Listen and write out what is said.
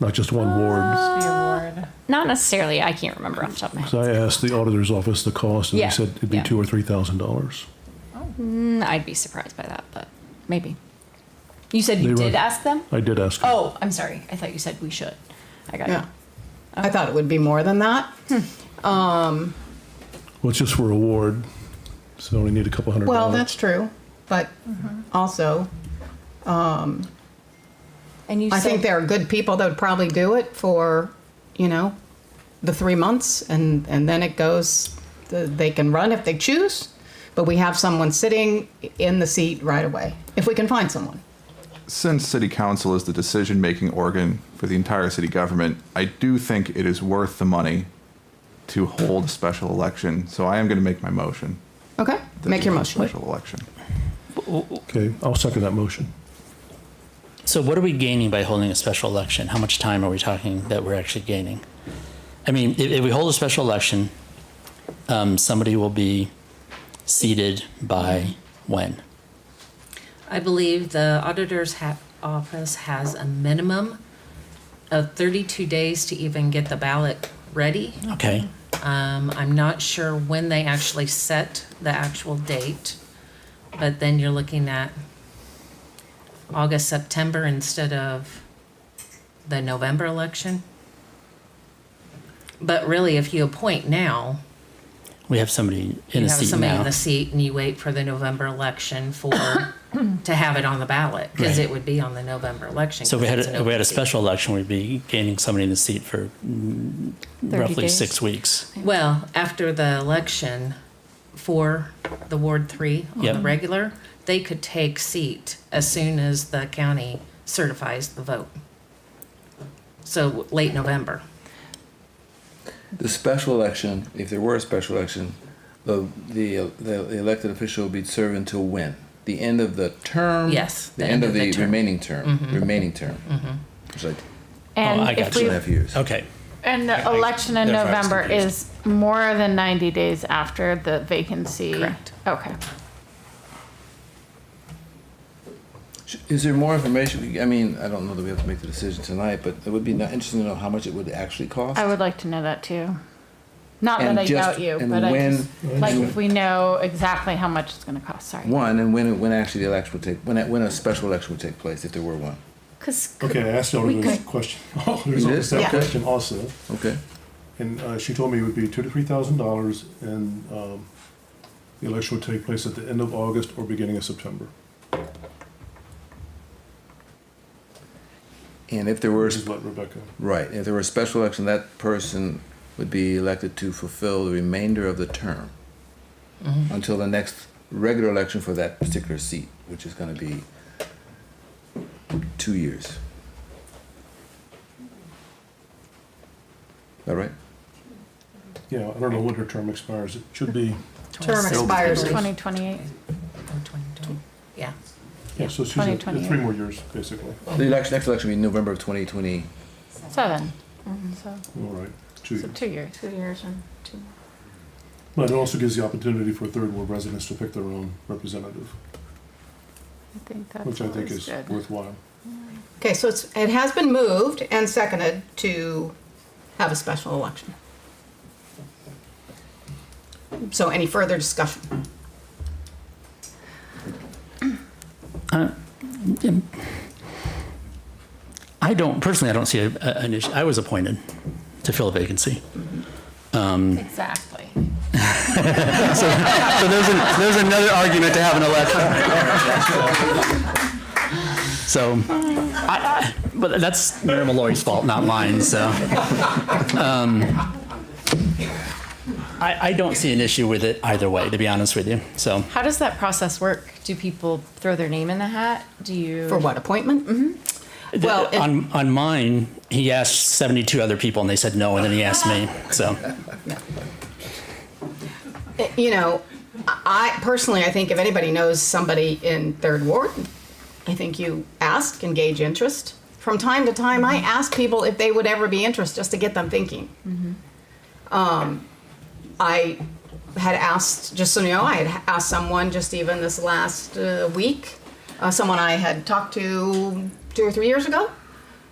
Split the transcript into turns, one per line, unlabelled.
not just one ward.
The award.
Not necessarily. I can't remember off the top of my head.
So I asked the auditor's office the cost, and
Yeah,
they said it'd be
yeah.
two or three thousand dollars.
Mm, I'd be surprised by that, but maybe. You said you
They
did
were-
ask them?
I did ask. them.
Oh, I'm sorry. I thought you said we should. I got
Yeah.
it.
I thought it would be more than that.
Well, it's just for a ward, so they only need a couple hundred dollars.
Well, that's true, but
Mm-hmm.
also,
And you
I
said
think there are good people that would probably do it for, you know, the three months and, and then it goes, th- they can run if they choose, but we have someone sitting in the seat right away, if we can find someone.
Since city council is the decision making organ for the entire city government, I do think it is worth the money to hold a special election. So I am going to make my motion.
Okay,
that
make
we
your
hold a
motion.
Special election.
Okay, I'll second that motion.
So what are we gaining by holding a special election? How much time are we talking that we're actually gaining? I mean, if, if we hold a special election, um, somebody will be seated by when?
I believe the auditor's ha- office has a minimum of 32 days to even get the ballot ready.
Okay.
Um, I'm not sure when they actually set the actual date, but then you're looking at August, September instead of the November election. But really, if you appoint now,
We have somebody in
you
a
have
seat
somebody
now.
in the seat and you wait for the November election for, to have it on the ballot, because
Right.
it would be on the November election.
So if we
'cause
had
it's an
a, if we had a
open seat.
special election, we'd be gaining somebody in the seat for mm,
30
roughly
days.
six weeks.
Well, after the election for the Ward Three on the
Yep.
regular, they could take seat as soon as the county certifies the vote. So late November.
The special election, if there were a special election, the the the elected official would be serving until when? The end of the term.
Yes,
The, end, of the,
term.
remaining term. Remaining term. It's like
Oh, I
And
got
if
two
you.
and
we,
a half years.
Okay.
and the election in
That's why I was
November
confused.
is more than 90 days after the vacancy.
Correct.
Okay.
Is there more information? we- I mean, I don't know that we have to make the decision tonight, but it would be not interesting to know how much it would actually cost.
I would like to know that too. Not
And
that I
just-
doubt you,
and
but I
when-
just, like if we know exactly how much it's going to cost. Sorry.
One and when when actually the election would take when when a special election would take place if there were one.
because
Okay, I asked the auditor's question. Auditor's
You
office
did?
that
Yeah.
question also,
Okay.
and uh, she told me it would be two to three thousand dollars, and um, the election would take place at the end of August or beginning of September.
And if there were
This is what Rebecca.
right, if there were a special election, that person would be elected to fulfill the remainder of the term until the next regular election for that particular seat, which is going to be two years. Is that right?
Yeah, I don't know when her term expires. It should be
Term expires in
2028.
Yeah,
yeah. So she's at-
2028.
three more years basically.
The election, next election will be November of 2020.
Seven. Mm-hmm, So,
All right, two
so
years.
two years.
two years and two.
But it also gives the opportunity for third world residents to pick their own representative,
I think that's
which I think
always
is
good.
worthwhile.
Okay, so it's, it has been moved and seconded to have a special election. So any further discussion?
I don't, personally, I don't see a, a- an issue. I was appointed to fill a vacancy.
Exactly.
So there's, an, there's another argument to have an election. So, I, but that's Mayor Malloy's fault, not mine, so. Um, I, I don't see an issue with it either way, to be honest with you, so.
How does that process work? Do people throw their name in the hat? Do you?
For what, appointment?
Mm-hmm.
Well, it-
On, on mine, he asked 72 other people and they said no, and then he asked me, so.
you know, I personally, I think if anybody knows somebody in Third Ward, I think you ask, engage interest. From time to time, I ask people if they would ever be interested, just to get them thinking. Um, I had asked, just so you know, I had asked someone just even this last uh, week, uh, someone I had talked to two or three years ago,